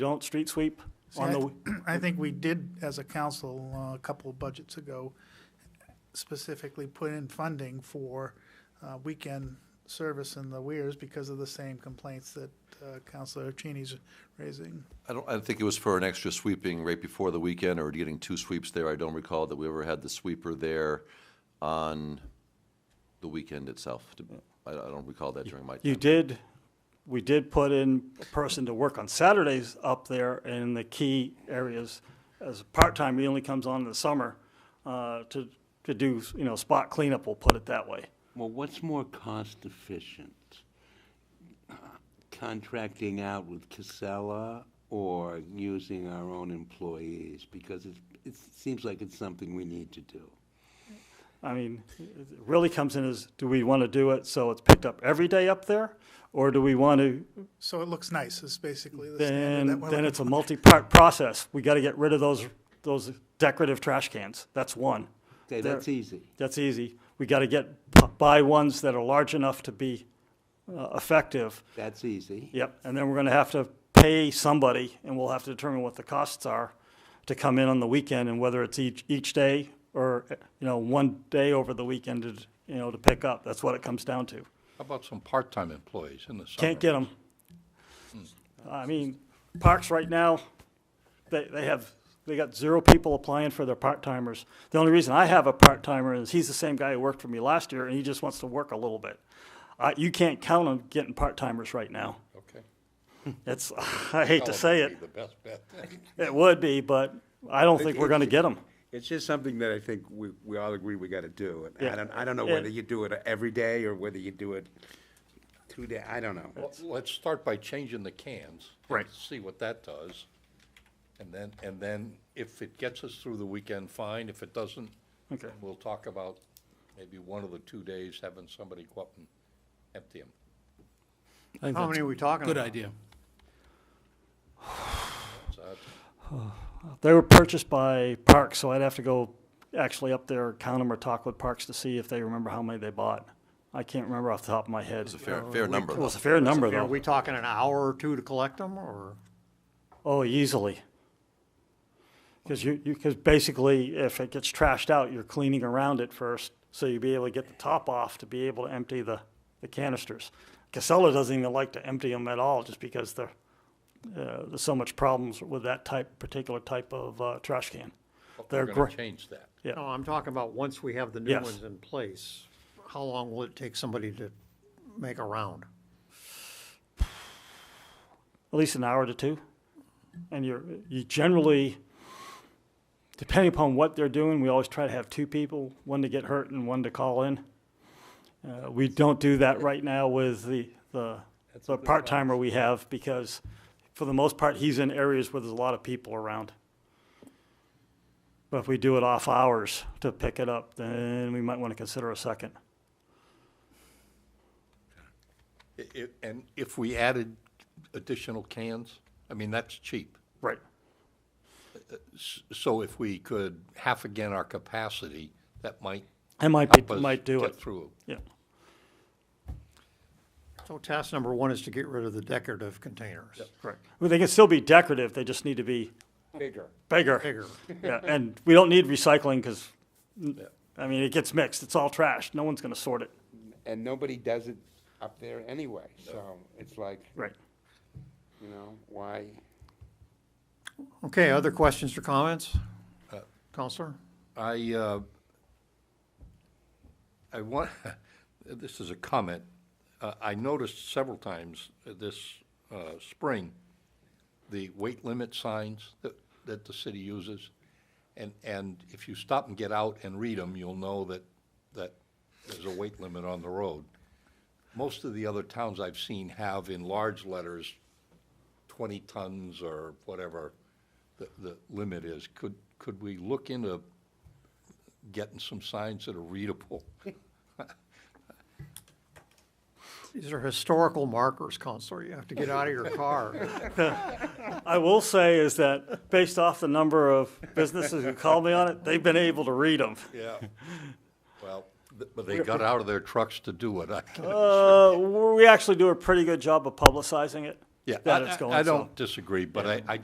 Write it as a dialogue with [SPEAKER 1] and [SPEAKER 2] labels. [SPEAKER 1] don't street sweep
[SPEAKER 2] See,
[SPEAKER 1] on
[SPEAKER 2] I-
[SPEAKER 1] the,
[SPEAKER 2] I think we did, as a council, uh, a couple of budgets ago, specifically put in funding for uh, weekend service in the weirs because of the same complaints that uh, Counselor Cheney's raising.
[SPEAKER 3] I don't, I think it was for an extra sweeping right before the weekend or getting two sweeps there. I don't recall that we ever had the sweeper there on the weekend itself. I I don't recall that during my
[SPEAKER 1] you
[SPEAKER 3] time.
[SPEAKER 1] did, we did put in a person to work on Saturdays up there in the key areas. As part-time, he only comes on in the summer, uh, to, to do, you know, spot cleanup, we'll put it that way.
[SPEAKER 4] Well, what's more cost efficient? Contracting out with Casella or using our own employees? Because it, it seems like it's something we need to do.
[SPEAKER 1] I mean, it really comes in as, do we want to do it so it's picked up every day up there? Or do we want to,
[SPEAKER 2] So it looks nice, is basically the standard that
[SPEAKER 1] then,
[SPEAKER 2] we're
[SPEAKER 1] then
[SPEAKER 2] looking
[SPEAKER 1] it's a multi-part process. We got to get rid of those, those decorative trash cans. That's one.
[SPEAKER 4] Okay,
[SPEAKER 1] There-
[SPEAKER 4] that's easy.
[SPEAKER 1] That's easy. We got to get, b- buy ones that are large enough to be uh, effective.
[SPEAKER 4] That's easy.
[SPEAKER 1] Yep, and then we're going to have to pay somebody, and we'll have to determine what the costs are to come in on the weekend, and whether it's each, each day, or, you know, one day over the weekend, to you know, to pick up. That's what it comes down to.
[SPEAKER 5] How about some part-time employees in the summer?
[SPEAKER 1] Can't get them. I mean, parks right now, they, they have, they got zero people applying for their part-timers. The only reason I have a part-timer is he's the same guy who worked for me last year, and he just wants to work a little bit. Uh, you can't count on getting part-timers right now.
[SPEAKER 5] Okay.
[SPEAKER 1] It's, I hate to say it,
[SPEAKER 5] The best bet.
[SPEAKER 1] it would be, but I don't think we're gonna get them.
[SPEAKER 6] It's just something that I think we, we all agree we gotta do. And
[SPEAKER 1] Yeah.
[SPEAKER 6] I don't, I don't know
[SPEAKER 1] Yeah.
[SPEAKER 6] whether you do it every day or whether you do it two day, I don't know.
[SPEAKER 5] Well, Let's start by changing the cans.
[SPEAKER 1] Right.
[SPEAKER 5] See what that does. And then, and then if it gets us through the weekend, fine. If it doesn't,
[SPEAKER 1] Okay.
[SPEAKER 5] then we'll talk about maybe one of the two days having somebody go up and empty them.
[SPEAKER 7] How many are we talking about? Good idea.
[SPEAKER 5] uh,
[SPEAKER 1] They were purchased by Parks, so I'd have to go actually up there, count them, or talk with Parks to see if they remember how many they bought. I can't remember off the top of my head.
[SPEAKER 3] It's a fair, fair number.
[SPEAKER 1] It was a
[SPEAKER 3] though.
[SPEAKER 1] fair number,
[SPEAKER 7] Are
[SPEAKER 1] though.
[SPEAKER 7] we talking an hour or two to collect them, or?
[SPEAKER 1] Oh, easily. Because you, because basically, if it gets trashed out, you're cleaning around it first, so you'll be able to get the top off to be able to empty the, the canisters. Casella doesn't even like to empty them at all, just because there, uh, there's so much problems with that type, particular type of, uh, trash can.
[SPEAKER 5] But
[SPEAKER 1] They're
[SPEAKER 5] We're gonna
[SPEAKER 1] gr-
[SPEAKER 5] change that.
[SPEAKER 1] Yeah.
[SPEAKER 7] No, I'm talking about once we have the new
[SPEAKER 1] Yes.
[SPEAKER 7] ones in place, how long will it take somebody to make a round?
[SPEAKER 1] at least an hour to two. And you're, you generally, depending upon what they're doing, we always try to have two people, one to get hurt and one to call in. Uh, we don't do that right now with the, the, the part timer we have because for the most part, he's in areas where there's a lot of people around. But if we do it off hours to pick it up, then we might want to consider a second.
[SPEAKER 5] I- i- and if we added additional cans, I mean, that's cheap.
[SPEAKER 1] Right.
[SPEAKER 5] So if we could half again our capacity, that might
[SPEAKER 1] It might
[SPEAKER 5] help
[SPEAKER 1] be,
[SPEAKER 5] us
[SPEAKER 1] might do
[SPEAKER 5] get
[SPEAKER 1] it.
[SPEAKER 5] through.
[SPEAKER 1] Yeah.
[SPEAKER 7] So task number one is to get rid of the decorative containers.
[SPEAKER 1] Correct. Well, they can still be decorative. They just need to be
[SPEAKER 6] Bigger.
[SPEAKER 1] Bigger.
[SPEAKER 7] Bigger.
[SPEAKER 1] Yeah, and we don't need recycling because, I mean, it gets mixed. It's all trash. No one's going to sort it.
[SPEAKER 6] And nobody does it up there anyway, so it's like,
[SPEAKER 1] Right.
[SPEAKER 6] you know, why?
[SPEAKER 7] Okay, other questions or comments? Counselor?
[SPEAKER 5] I, uh, I want, this is a comment. Uh, I noticed several times this uh, spring, the weight limit signs that, that the city uses. And, and if you stop and get out and read them, you'll know that, that there's a weight limit on the road. Most of the other towns I've seen have in large letters, 20 tons or whatever the, the limit is. Could, could we look into getting some signs that are readable?
[SPEAKER 7] These are historical markers, Counselor. You have to get out of your car.
[SPEAKER 1] I will say is that based off the number of businesses who called me on it, they've been able to read them.
[SPEAKER 5] Yeah. Well, th- but they got out of their trucks to do it. I-
[SPEAKER 1] Oh, Uh, we actually do a pretty good job of publicizing it.
[SPEAKER 5] Yeah,
[SPEAKER 1] that
[SPEAKER 5] I-
[SPEAKER 1] it's
[SPEAKER 5] I-
[SPEAKER 1] going
[SPEAKER 5] I
[SPEAKER 1] south.
[SPEAKER 5] don't disagree, but I, I